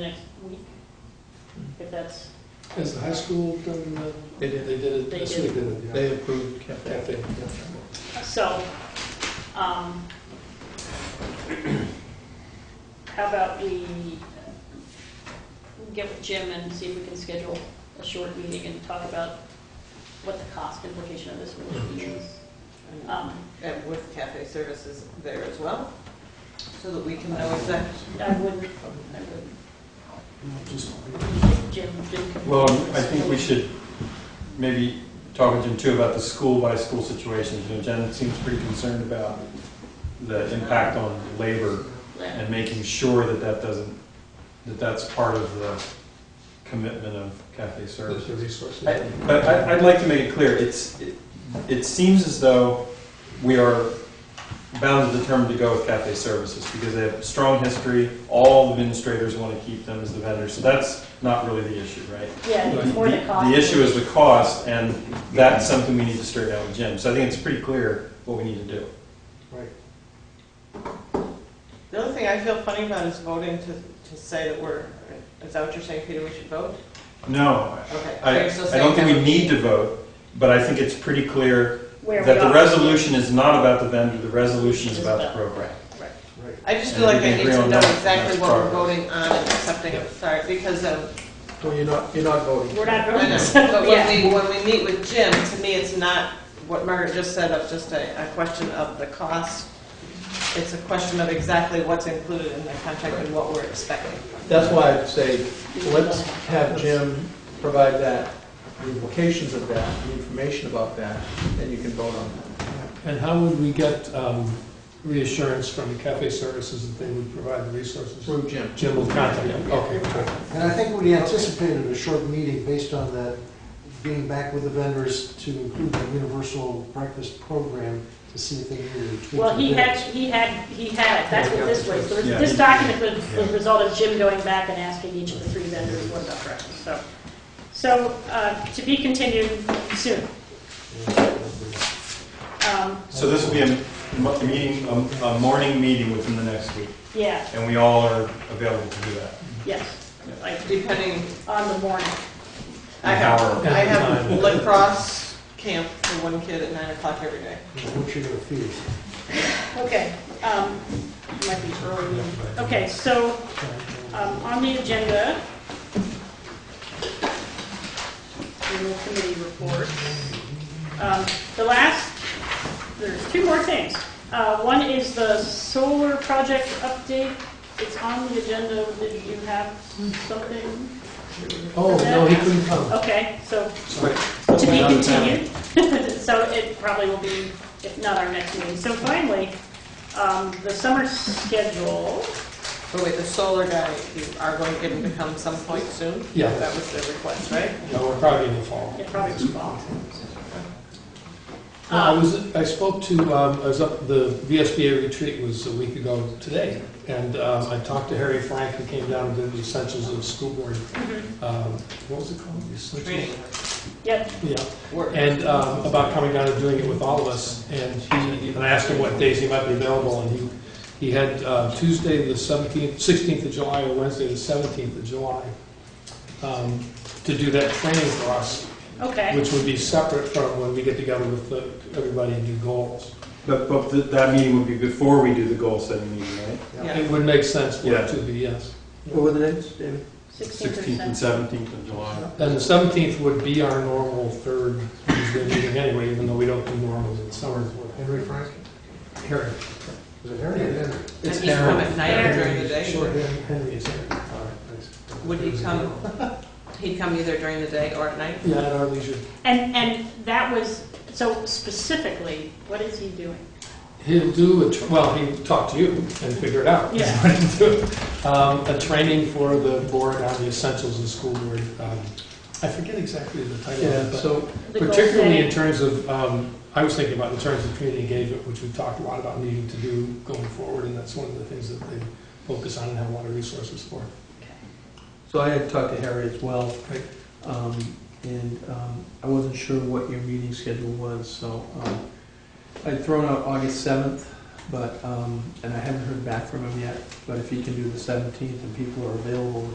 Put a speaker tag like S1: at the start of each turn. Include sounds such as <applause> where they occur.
S1: next week, if that's,
S2: Has the high school done, the-
S3: They
S2: they
S3: did,
S2: did it,
S1: They
S2: this week, did it?
S3: they approved
S2: Yeah,
S3: cafe.
S2: they- yeah.
S1: so, um, how about we get with Jim and see if we can schedule a short meeting and talk about what the cost implication of this really is. Um,
S4: And with cafe services there as well, so that we can know exactly.
S1: I wouldn't, I would, Jim, Jim. can-
S5: Well, um, I think we should maybe talk with Jim too about the school-by-school situations. You know, Jen seems pretty concerned about the impact on labor
S1: Yeah.
S5: and making sure that that doesn't, that that's part of the commitment of cafe service.
S2: There's the resources.
S5: I- But I, I'd like to make it clear, it's, it, it seems as though we are bound and determined to go with cafe services because they have a strong history, all administrators want to keep them as the vendors, so that's not really the issue, right?
S1: Yeah,
S5: The-
S1: it's more the cost.
S5: The issue is the cost, and that's something we need to straighten out with Jim, so I think it's pretty clear what we need to do.
S2: Right.
S4: The other thing I feel funny about is voting to, to say that we're, is that what you're saying, Peter, we should vote?
S5: No,
S4: Okay.
S5: I,
S4: Okay, so
S5: I don't
S4: say
S5: think we
S4: have-
S5: need to vote, but I think it's pretty clear
S1: Where we
S5: that the
S1: are.
S5: resolution is not about the vendor, the resolution is about the program.
S2: Right.
S4: I just feel
S5: And
S4: like
S5: we
S4: I
S5: can
S4: need
S5: agree
S4: to
S5: on
S4: know
S5: that,
S4: exactly
S5: that's
S4: what we're
S5: progress.
S4: voting on and accepting, sorry, because um
S3: Well, you're not, you're not voting.
S1: We're not
S4: I
S1: voting.
S4: know, but when
S1: Yeah.
S4: we, when we meet with Jim, to me, it's not what Margaret just said of just a, a question of the cost. It's a question of exactly what's included in the contract and what we're expecting.
S3: That's why I'd say, let's have Jim provide that, the implications of that, the information about that, and you can vote on that.
S2: And how would we get um, reassurance from Cafe Services that they would provide the resources?
S3: Through Jim.
S2: Jim will contact them, okay. good.
S6: And I think we anticipated a short meeting based on that, getting back with the vendors to include the universal breakfast program to see if they needed to tweak.
S1: Well, he
S6: the
S1: had,
S6: bids.
S1: he had, he had it, that's what this was, So
S5: Yeah.
S1: this document was was the result of Jim going back and asking each of the three vendors what about breakfast, so. So, uh, to be continued soon.
S6: uh,
S1: Um,
S5: So this will be a m- a meeting, a a morning meeting within the next week,
S1: Yeah,
S5: and we all are available to do that.
S1: yes, like,
S4: Depending,
S1: on the morning.
S4: I
S5: An
S4: have,
S5: hour.
S4: I have lacrosse camp for one kid at nine o'clock every day.
S6: What you're gonna feed.
S1: Okay, um, might be early. Okay, so, um, on the agenda, in the committee report, um, the last, there's two more things. Uh, one is the solar project update. It's on the agenda. Did you have something?
S6: Oh, no, he couldn't come.
S1: Okay, so
S3: Sorry.
S1: to be
S3: Another time.
S1: continued. <laughs> So it probably will be, if not our next meeting. So finally, um, the summer schedule,
S4: But wait, the solar guy, you are going to get him to come some point soon?
S2: Yeah.
S4: That was the request, right?
S2: No, we're probably in the fall.
S1: it probably was fall.
S2: No,
S1: Um,
S2: I was, I spoke to, um, I was up, the VSBA retreat was a week ago today, and um, I talked to Harry Frank, who came down and did the essentials of school board,
S1: Mhm.
S2: um, what was it called? The essentials?
S4: Training,
S1: Yep,
S2: Yeah,
S4: work.
S2: and um, about coming down and doing it with all of us, and he, and I asked him what days he might be available, and he, he had uh, Tuesday, the 17th, 16th of July, or Wednesday, the 17th of July, um, to do that training for us,
S1: okay.
S2: which would be separate from when we get together with the- everybody and do goals.
S5: But, but th- that meeting would be before we do the goal setting meeting, right?
S4: Yeah.
S2: It would make sense for
S5: Yeah.
S2: it to be, yes.
S3: What were the names, David?
S5: 16th and
S1: 16%.
S5: 17th of July.
S2: And the 17th would be our normal third Tuesday meeting anyway, even though we don't do normals in summers.
S6: Henry Frank?
S2: Harry,
S6: Was it Harry or Henry?
S4: And
S2: it's
S4: he'd come
S2: Aaron.
S4: at night or during the day?
S6: Short Henry.
S2: Henry is Harry.
S6: All right, thanks.
S4: Would he come, he'd come either during the day or at night?
S2: Yeah, at our leisure.
S1: And, and that was, so specifically, what is he doing?
S2: He'll do, a tr- well, he'll talk to you and figure it out.
S1: Yeah.
S2: <laughs> What he's doing. Um, A training for the board on the essentials of school board. Um, I forget exactly the title
S3: Yeah,
S2: of it,
S3: so,
S1: The
S2: but
S1: goal
S2: particularly in
S1: setting?
S2: terms of, um, I was thinking about in terms of community engagement, which we've talked a lot about needing to do going forward, and that's one of the things that they focus on and have a lot of resources for.
S3: so I had talked to Harry as well.
S2: Right.
S3: Um, and, um, I wasn't sure what your meeting schedule was, so, um, I'd thrown out August seventh, but, um, and I haven't heard back from him yet, but if he can do the seventeenth and people are available,